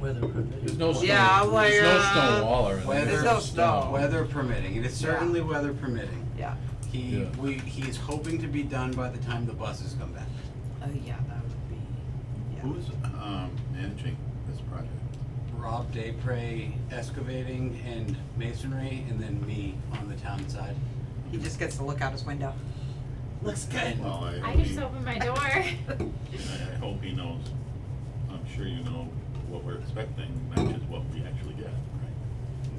Weather permitting. There's no stone, Yeah, I'm like, there's no uh, stone wall or anything. There's Weather, no Oh. stone. weather permitting, it is certainly weather permitting. Yeah. He, Yeah. we, he's hoping to be done by the time the buses come back. Oh, yeah, that would be, yeah. Who's um, managing this project? Rob Daypray excavating and masonry, and then me on the town side. He just gets to look out his window. Looks good. Well, I I hope just he, I opened my door. I hope he knows, I'm sure you know what we're expecting matches what we actually get.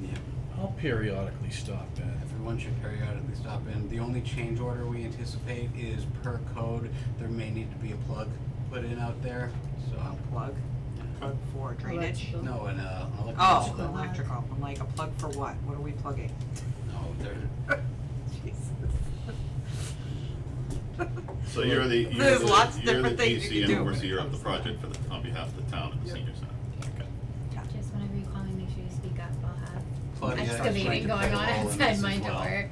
Yeah, I'll periodically stop in. everyone should periodically stop in. The only change order we anticipate is per code, there may need to be a plug put in out there, so. Plug Cut. for drainage. No, and, uh, electric. Oh, plug. electrical. I'm like, a plug for what? What are we plugging? No, there, Jesus. So you're the, you're There's lots of the, you're the different things you can DC and do when it overseer of comes the to project for the, on behalf of the town and the senior center. Okay. Just whenever you call me, make sure you speak up. I'll have Claudia is trying excavating to going plug on all of outside this my as well. door.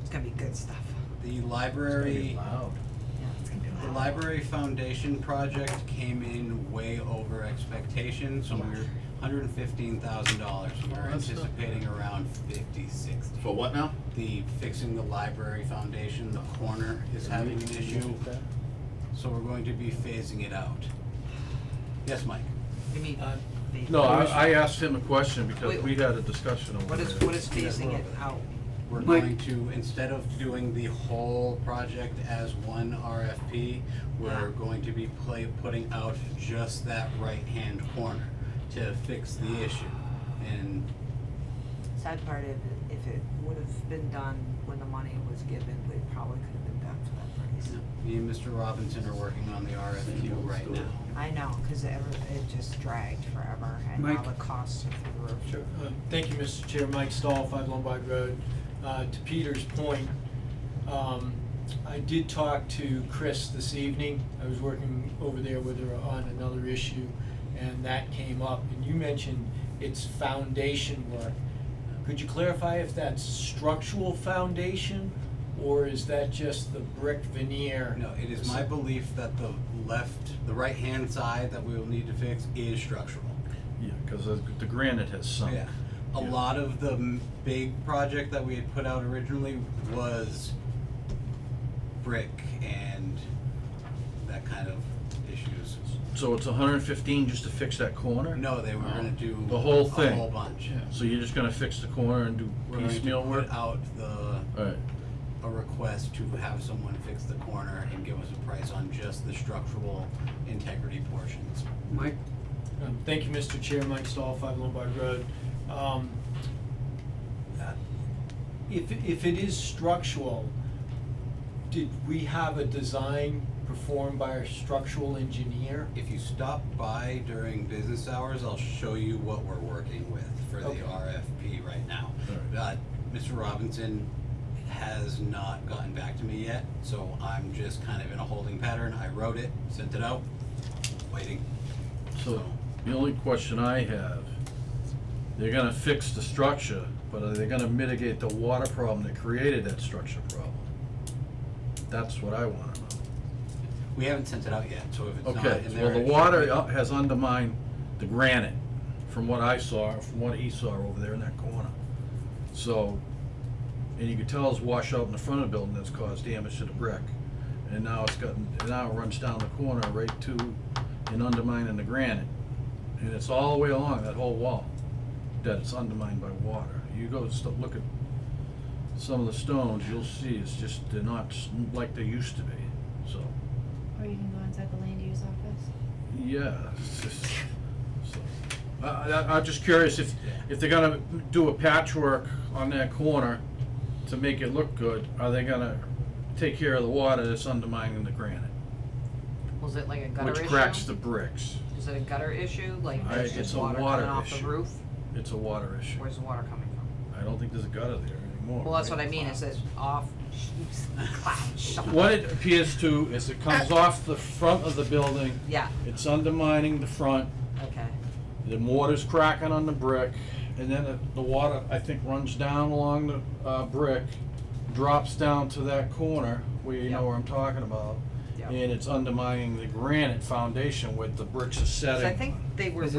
It's gonna be good stuff. The It's gonna be library, loud. Yeah, it's gonna be the loud. library foundation project came in way over expectation, so we're hundred and fifteen thousand dollars. We're that's not anticipating around fifty, sixty. For what now? The fixing the library foundation, the corner is having an issue, so we're going to be phasing it out. Yes, Mike? You mean, Uh, the- No, I, I asked him a question because Wait. we had a discussion over What is, there. what is phasing it out? We're Mike. going to, instead of doing the whole project as one RFP, we're going to be play, putting out just that right-hand corner to fix the issue. And Sad part of, it, if it would have been done when the money was given, we probably could have been done for that price. me and Mr. Robinson are working on the RFQ right now. I know, cause it ever, it just dragged forever and now Mike? the costs are through the roof. Sure. Uh, Thank you, Mr. Chair. Mike Stahl, Five Lombard Road. Uh, To Peter's point, um, I did talk to Chris this evening. I was working over there with her on another issue, and that came up. And you mentioned it's foundation work. Could you clarify if that's structural foundation, or is that just the brick veneer? No, it is my belief that the left, the right-hand side that we will need to fix is structural. Yeah, cause the the granite has sunk. Yeah. A Oh, Yeah. lot of the m- big project that we had put out originally was brick and that kind of issues. So it's hundred and fifteen just to fix that corner? No, they were gonna do The whole a thing. whole bunch. So you're just gonna fix the corner and do We're going to piecemeal work? put out the Alright, a request to have someone fix the corner and give us a price on just the structural integrity portions. Mike, Um, Thank you, Mr. Chair, Mike Stahl, Five Lombard Road. Um, uh, If, if it is structural, did we have a design performed by our structural engineer? If you stop by during business hours, I'll show you what we're working with for the Okay. RFP right now. All Uh, Mr. Robinson has not gotten back to me yet, so I'm just kind of in a holding pattern. I wrote it, sent it out, waiting. so the only question I have, they're gonna fix the structure, but are they gonna mitigate the water problem that created that structure problem? That's what I wanna know. We haven't sent it out yet, so if it's not Okay, in there. well, the it should be- water u- has undermined the granite, from what I saw, from what he saw over there in that corner. So, and you could tell it's washed out in the front of the building that's caused damage to the brick. And now it's gotten, and now it runs down the corner right to and undermining the granite. And it's all the way along that whole wall that it's undermined by water. You go st- look at some of the stones, you'll see it's just, they're not s- like they used to be, so. Or you can go inside the land use office. Yeah. it's just- so, I, I, I'm just curious if, if they're gonna do a patchwork on that corner to make it look good, are they gonna take care of the water that's undermining the granite? Was it like a gutter Which issue? cracks the bricks. Is it a gutter issue? Like I- there's it's just a water water coming off the issue. roof? It's a water issue. Where's the water coming from? I don't think there's a gutter there anymore. Well, that's right? what I mean, is it off, cloud, something? What it appears to is it comes off the front of the building, Yeah, it's undermining the front, okay. The mortar's cracking on the brick, and then the- the water, I think, runs down along the uh, brick, drops down to that corner, where you know Yeah. where I'm talking about, Yeah. and it's undermining the granite foundation where the bricks are setting. So I think they were Is